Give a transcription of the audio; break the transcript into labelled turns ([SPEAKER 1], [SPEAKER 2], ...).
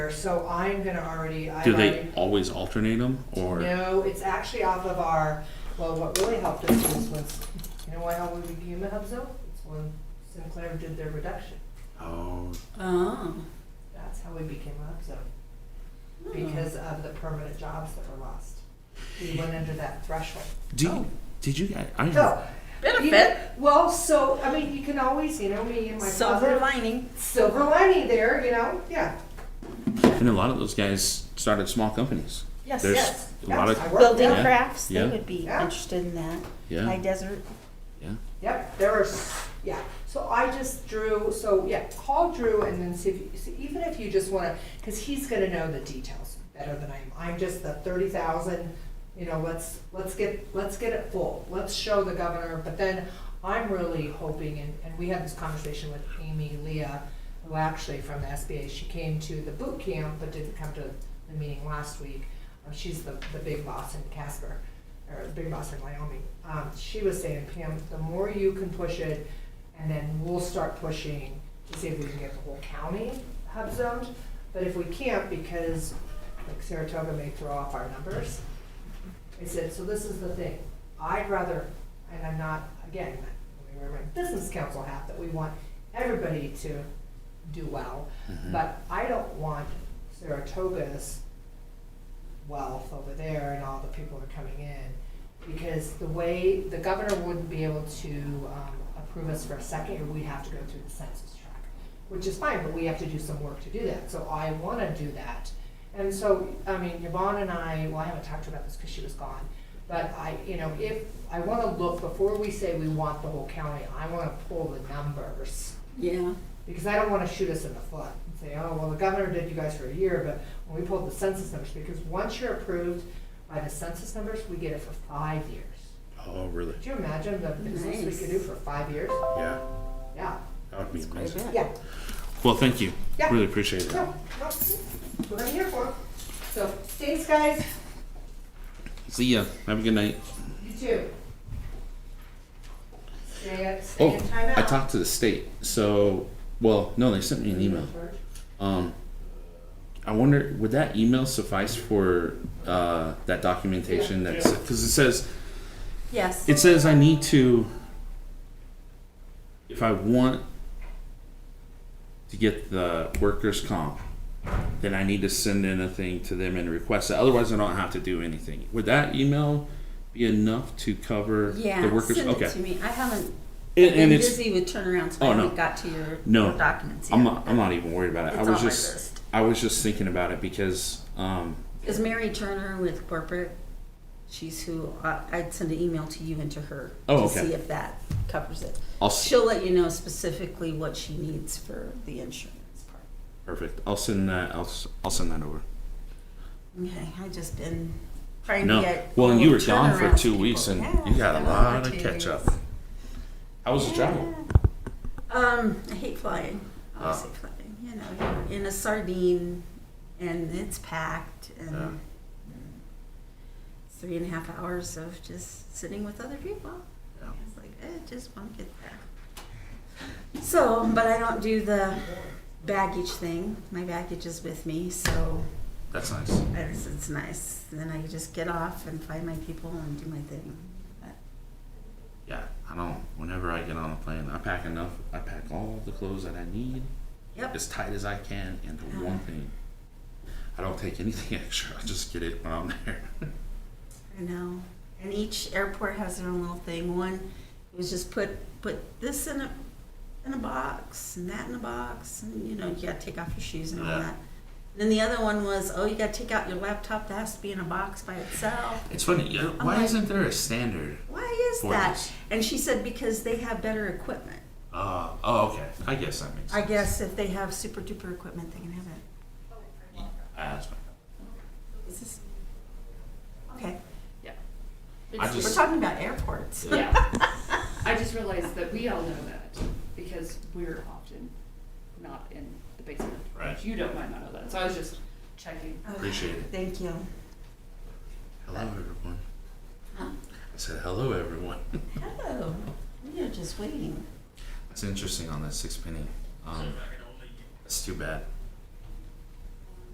[SPEAKER 1] So I'm gonna already, I've
[SPEAKER 2] Do they
[SPEAKER 1] already,
[SPEAKER 2] always alternate them, or?
[SPEAKER 1] no, it's actually off of our, well, what really helped us was, was, you know why, how we became a hub zone? It's when Sinclair did their reduction,
[SPEAKER 2] Oh,
[SPEAKER 3] Oh.
[SPEAKER 1] that's how we became a hub zone,
[SPEAKER 3] Hmm.
[SPEAKER 1] because of the permanent jobs that were lost. We went under that threshold.
[SPEAKER 2] do
[SPEAKER 3] Oh.
[SPEAKER 2] you, did you guys?
[SPEAKER 1] So, you
[SPEAKER 2] I
[SPEAKER 1] know,
[SPEAKER 3] Benefit.
[SPEAKER 1] well, so, I mean, you can always, you know, me and my
[SPEAKER 3] Silver
[SPEAKER 1] closet,
[SPEAKER 3] lining.
[SPEAKER 1] silver lining there, you know, yeah,
[SPEAKER 2] and a lot of those guys started small companies.
[SPEAKER 3] Yes.
[SPEAKER 2] There's
[SPEAKER 1] yes.
[SPEAKER 2] a lot
[SPEAKER 1] yes,
[SPEAKER 2] of-
[SPEAKER 1] I work
[SPEAKER 3] Building
[SPEAKER 1] there.
[SPEAKER 2] Yeah,
[SPEAKER 3] crafts,
[SPEAKER 2] yeah.
[SPEAKER 3] they would be
[SPEAKER 1] Yeah.
[SPEAKER 3] interested in that.
[SPEAKER 2] Yeah.
[SPEAKER 3] High desert.
[SPEAKER 1] Yep, there are, s- yeah, so I just drew, so yeah, call Drew and then see if, you see, even if you just wanna, cause he's gonna know the details better than I am. I'm just the thirty thousand, you know, let's, let's get, let's get it full, let's show the governor, but then I'm really hoping, and, and we had this conversation with Amy Leah, who actually from the SBA, she came to the boot camp but didn't come to the meeting last week. Uh, She's the, the big boss in Casper or Big Boss in Wyoming, um, she was saying, Pam, the more you can push it, and then we'll start pushing to see if we can get the whole county hub zoned. But if we can't, because like Saratoga may throw off our numbers, I said, so this is the thing, I'd rather, and I'm not, again, let me wear my business council hat, that we want everybody to do well.
[SPEAKER 2] Mm-hmm.
[SPEAKER 1] But I don't want Saratoga's wealth over there and all the people that are coming in. Because the way, the governor wouldn't be able to um, approve us for a second, year. we'd have to go through the census track, which is fine, but we have to do some work to do that. So I want to do that. And so, I mean, Yvonne and I, well, I haven't talked to her about this because she was gone. But I, you know, if, I want to look, before we say we want the whole county, I want to pull the numbers
[SPEAKER 3] Yeah.
[SPEAKER 1] because I don't wanna shoot us in the foot and say, oh, well, the governor did you guys for a year, but when we pulled the census numbers, because once you're approved by the census numbers, we get it for five years.
[SPEAKER 2] Oh, really?
[SPEAKER 1] Could you imagine the business we
[SPEAKER 3] Nice.
[SPEAKER 1] could do for five years?
[SPEAKER 2] Yeah.
[SPEAKER 1] Yeah,
[SPEAKER 2] That would be
[SPEAKER 3] Quite a
[SPEAKER 2] amazing.
[SPEAKER 3] bit.
[SPEAKER 1] yeah,
[SPEAKER 2] Well, thank you.
[SPEAKER 1] Yeah.
[SPEAKER 2] Really appreciate it.
[SPEAKER 1] no, no, that's what I'm here for. So, thanks, guys,
[SPEAKER 2] See ya. Have a good night.
[SPEAKER 1] you too. Stay at, stay
[SPEAKER 2] Oh,
[SPEAKER 1] in timeout.
[SPEAKER 2] I talked to the state. So, well, no, they sent me an email. Um, I wonder would that email suffice for uh, that documentation? That's because it says
[SPEAKER 3] Yes.
[SPEAKER 2] It says I need to, if I want to get the workers' comp, then I need to send in a thing to them and request it. Otherwise, I don't have to do anything. Would that email be enough to cover
[SPEAKER 3] Yeah.
[SPEAKER 2] the workers?
[SPEAKER 3] Send
[SPEAKER 2] okay.
[SPEAKER 3] it to me. I haven't.
[SPEAKER 2] And,
[SPEAKER 3] I've
[SPEAKER 2] and
[SPEAKER 3] been
[SPEAKER 2] it's,
[SPEAKER 3] busy with turnarounds. so
[SPEAKER 2] Oh,
[SPEAKER 3] I
[SPEAKER 2] no.
[SPEAKER 3] haven't got to your
[SPEAKER 2] No.
[SPEAKER 3] documents yet.
[SPEAKER 2] I'm not, I'm not even worried about it. I was
[SPEAKER 3] It's on my
[SPEAKER 2] just,
[SPEAKER 3] list.
[SPEAKER 2] I was just thinking about it because, um,
[SPEAKER 3] Is Mary Turner with corporate? She's who I, I'd send an email to you and to her
[SPEAKER 2] Oh,
[SPEAKER 3] to
[SPEAKER 2] okay.
[SPEAKER 3] see if that covers it.
[SPEAKER 2] I'll, s-
[SPEAKER 3] She'll let you know specifically what she needs for the insurance part.
[SPEAKER 2] perfect. I'll send that, I'll, s- I'll send that over.
[SPEAKER 3] Okay, I just been trying to
[SPEAKER 2] No,
[SPEAKER 3] get.
[SPEAKER 2] well, and you were
[SPEAKER 3] little
[SPEAKER 2] gone for
[SPEAKER 3] turnaround
[SPEAKER 2] two
[SPEAKER 3] people.
[SPEAKER 2] weeks and
[SPEAKER 3] Yeah,
[SPEAKER 2] you got a
[SPEAKER 3] been
[SPEAKER 2] lot
[SPEAKER 3] for
[SPEAKER 2] of
[SPEAKER 3] two
[SPEAKER 2] catch up.
[SPEAKER 3] weeks.
[SPEAKER 2] How was the travel?
[SPEAKER 3] Yeah. Um, I hate flying. I always
[SPEAKER 2] Ah.
[SPEAKER 3] hate flying. You know, you're in a sardine and it's packed and
[SPEAKER 2] Yeah.
[SPEAKER 3] it's three and a half hours of just sitting with other people.
[SPEAKER 2] Yeah.
[SPEAKER 3] It's like, eh, just won't get there. So, but I don't do the baggage thing. My baggage is with me, so
[SPEAKER 2] That's nice.
[SPEAKER 3] it's, it's nice. Then I just get off and find my people and do my thing. But
[SPEAKER 2] Yeah, I don't. Whenever I get on a plane, I pack enough. I pack all the clothes that I need,
[SPEAKER 3] Yep.
[SPEAKER 2] as tight as I can, into
[SPEAKER 3] Uh-huh.
[SPEAKER 2] one thing. I don't take anything extra. I just get it when I'm there.
[SPEAKER 3] I know. And each airport has their own little thing. One was just put put this in a in a box and that in a box, and you know you gotta take off your shoes and all
[SPEAKER 2] Yeah.
[SPEAKER 3] that. And then the other one was, oh, you gotta take out your laptop. That has to be in a box by itself.
[SPEAKER 2] It's funny. You know,
[SPEAKER 3] I'm
[SPEAKER 2] why
[SPEAKER 3] like-
[SPEAKER 2] isn't there a standard?
[SPEAKER 3] Why is
[SPEAKER 2] For
[SPEAKER 3] that?
[SPEAKER 2] this.
[SPEAKER 3] And she said because they have better equipment.
[SPEAKER 2] Uh, oh, okay. I guess that makes.
[SPEAKER 3] I
[SPEAKER 2] sense.
[SPEAKER 3] guess if they have super duper equipment, they can have it.
[SPEAKER 2] Yeah, that's fine.
[SPEAKER 3] Is this okay?
[SPEAKER 2] I
[SPEAKER 4] It's
[SPEAKER 2] just-
[SPEAKER 3] We're talking about airports.
[SPEAKER 4] yeah. I just realized that we all know that because we're often not in the basement.
[SPEAKER 2] Right.
[SPEAKER 4] You don't might not know that, so I was just checking.
[SPEAKER 3] Okay,
[SPEAKER 2] Appreciate it.
[SPEAKER 3] Thank you.
[SPEAKER 2] Hello, everyone.
[SPEAKER 3] Huh?
[SPEAKER 2] I said hello, everyone.
[SPEAKER 3] Hello. We are just waiting.
[SPEAKER 2] That's interesting on that six penny. Um, that's too bad.